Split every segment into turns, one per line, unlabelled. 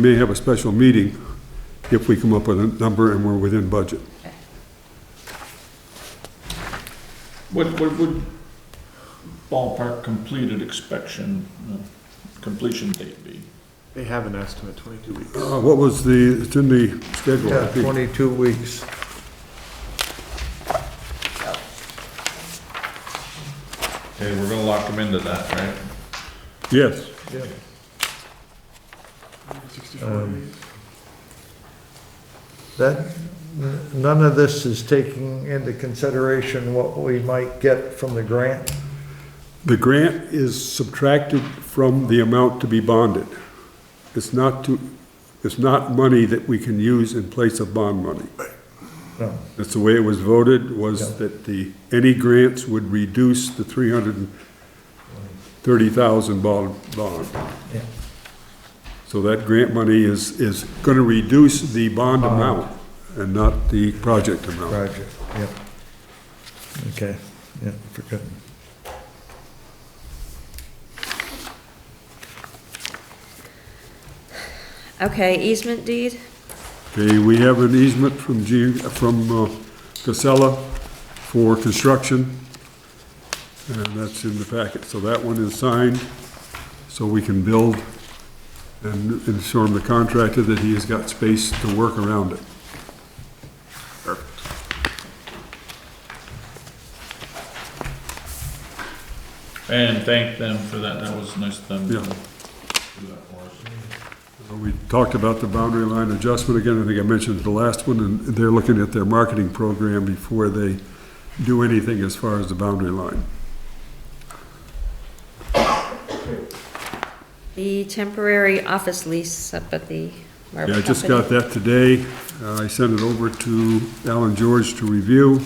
may have a special meeting if we come up with a number and we're within budget.
What, what would ballpark completed inspection, uh, completion date be?
They have an estimate, 22 weeks.
Uh, What was the, it's in the schedule. I
Yeah,
think.
22 weeks.
Okay, we're gonna lock them into that, right?
Yes,
Yeah.
64 weeks.
That, n- none of this is taking into consideration what we might get from the grant.
the grant is subtracted from the amount to be bonded. It's not to, it's not money that we can use in place of bond money.
No.
That's the way it was voted, was
Yeah.
that the, any grants would reduce the three hundred and thirty thousand bond, bond.
Yeah.
So that grant money is, is gonna reduce the bond amount and not the project amount.
Roger, yeah. Okay, yeah, forgotten.
Okay, easement deed,
Okay, we have an easement from G, from uh, Casella for construction. And that's in the packet, so that one is signed, so we can build and inform the contractor that he has got space to work around it.
And thank them for that, that was nice of them. to
Yeah.
do that for us.
We talked about the boundary line adjustment again, I think I mentioned the last one, and they're looking at their marketing program before they do anything as far as the boundary line.
the temporary office lease up at the marble
Yeah, I
company.
just got that today. Uh, I sent it over to Alan George to review.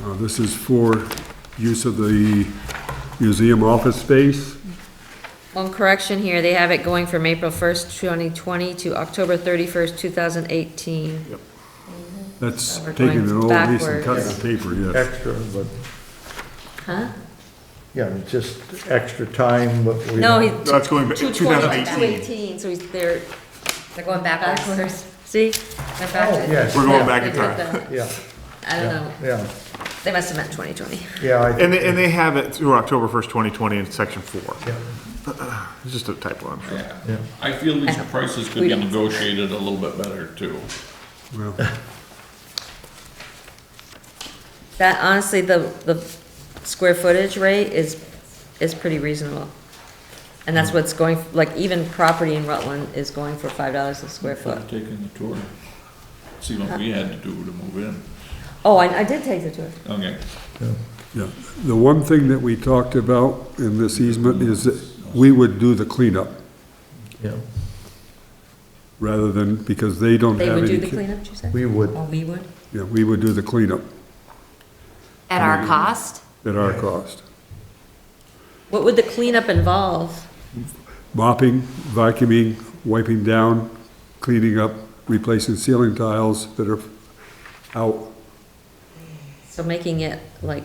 Uh, This is for use of the museum office space.
One correction here, they have it going from April first, twenty twenty to October thirty-first, two thousand eighteen.
That's
We're
taking an
going
old lease and
backwards.
cutting the paper, yes.
Extra, but,
Huh?
yeah, just extra time, but we.
No,
don't-
he.
That's going back-
220,
2018.
218, so he's, they're. They're going backwards. See? They're backwards.
yes.
Oh, We're going back in
Yeah, they
time.
got the-
Yeah,
I don't know,
yeah,
they must have meant twenty twenty.
yeah, I,
And they, and they have it through October 1st, 2020 in section four. Uh,
yeah,
It's just a typo, I'm sure.
yeah.
I feel these
don't-
prices could
we
be
don't-
negotiated a little bit better too.
Well,
That honestly, the, the square footage rate is, is pretty reasonable. And that's what's going, like, even property in Rutland is going for five dollars a square foot.
Should've Taken the tour, see what we had to do to move in.
Oh, I, I did take the tour.
Okay,
yeah. The one thing that we talked about in this easement is that we would do the cleanup
Yeah.
rather than, because they don't
They
have
would
any.
do the
ca-
cleanup, you said?
We would,
Oh, we would?
Yeah, we would do the cleanup
At
Mm.
our cost?
at our cost.
What would the cleanup involve?
mopping, vacuuming, wiping down, cleaning up, replacing ceiling tiles that are out.
So making it like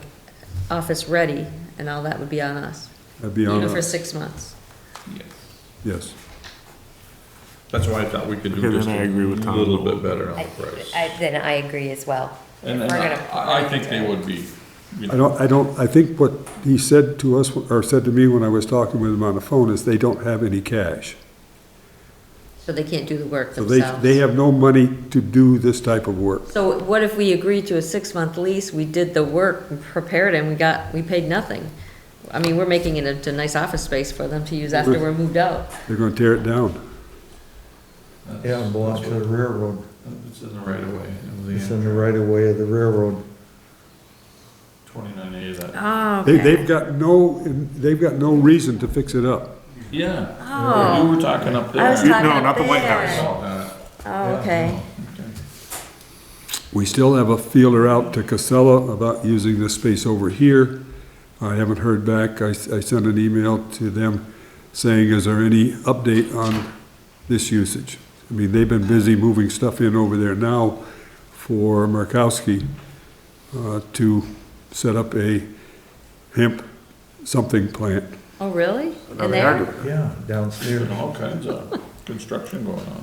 office-ready and all that would be on us,
That'd be on
even for
us,
six months.
yes.
yes.
That's why I thought we could do
Okay,
just
then I
a
agree with Tom.
little bit better on
I-
the price.
I- Then I agree as well.
And
If
then
we're gonna-
I, I think they would be, you
I
know,
don't, I don't, I think what he said to us, or said to me when I was talking with him on the phone, is they don't have any cash.
So they can't do the work
So they,
themselves.
they have no money to do this type of work.
So what if we agreed to a six-month lease, we did the work, we prepared and we got, we paid nothing? I mean, we're making it into a nice office space for them to use after we're moved out.
They're gonna tear it down.
yeah, it belongs to the railroad.
it's in the right of way.
It's in the right of way of the railroad.
Twenty-nine A that.
Oh,
They, they've got no, they've got no reason to fix it up.
Yeah, you
Oh,
were talking up there.
I was
You-
talking
no, not the White
there.
House.
Oh, uh,
Oh, okay.
We still have a feeler out to Casella about using this space over here. I haven't heard back. I, I sent an email to them saying, is there any update on this usage? I mean, they've been busy moving stuff in over there now for Murkowski uh, to set up a hemp something plant.
Oh, really?
Now
In
they are
there?
doing it.
Yeah,
Doing
downstairs.
all kinds of, construction going on.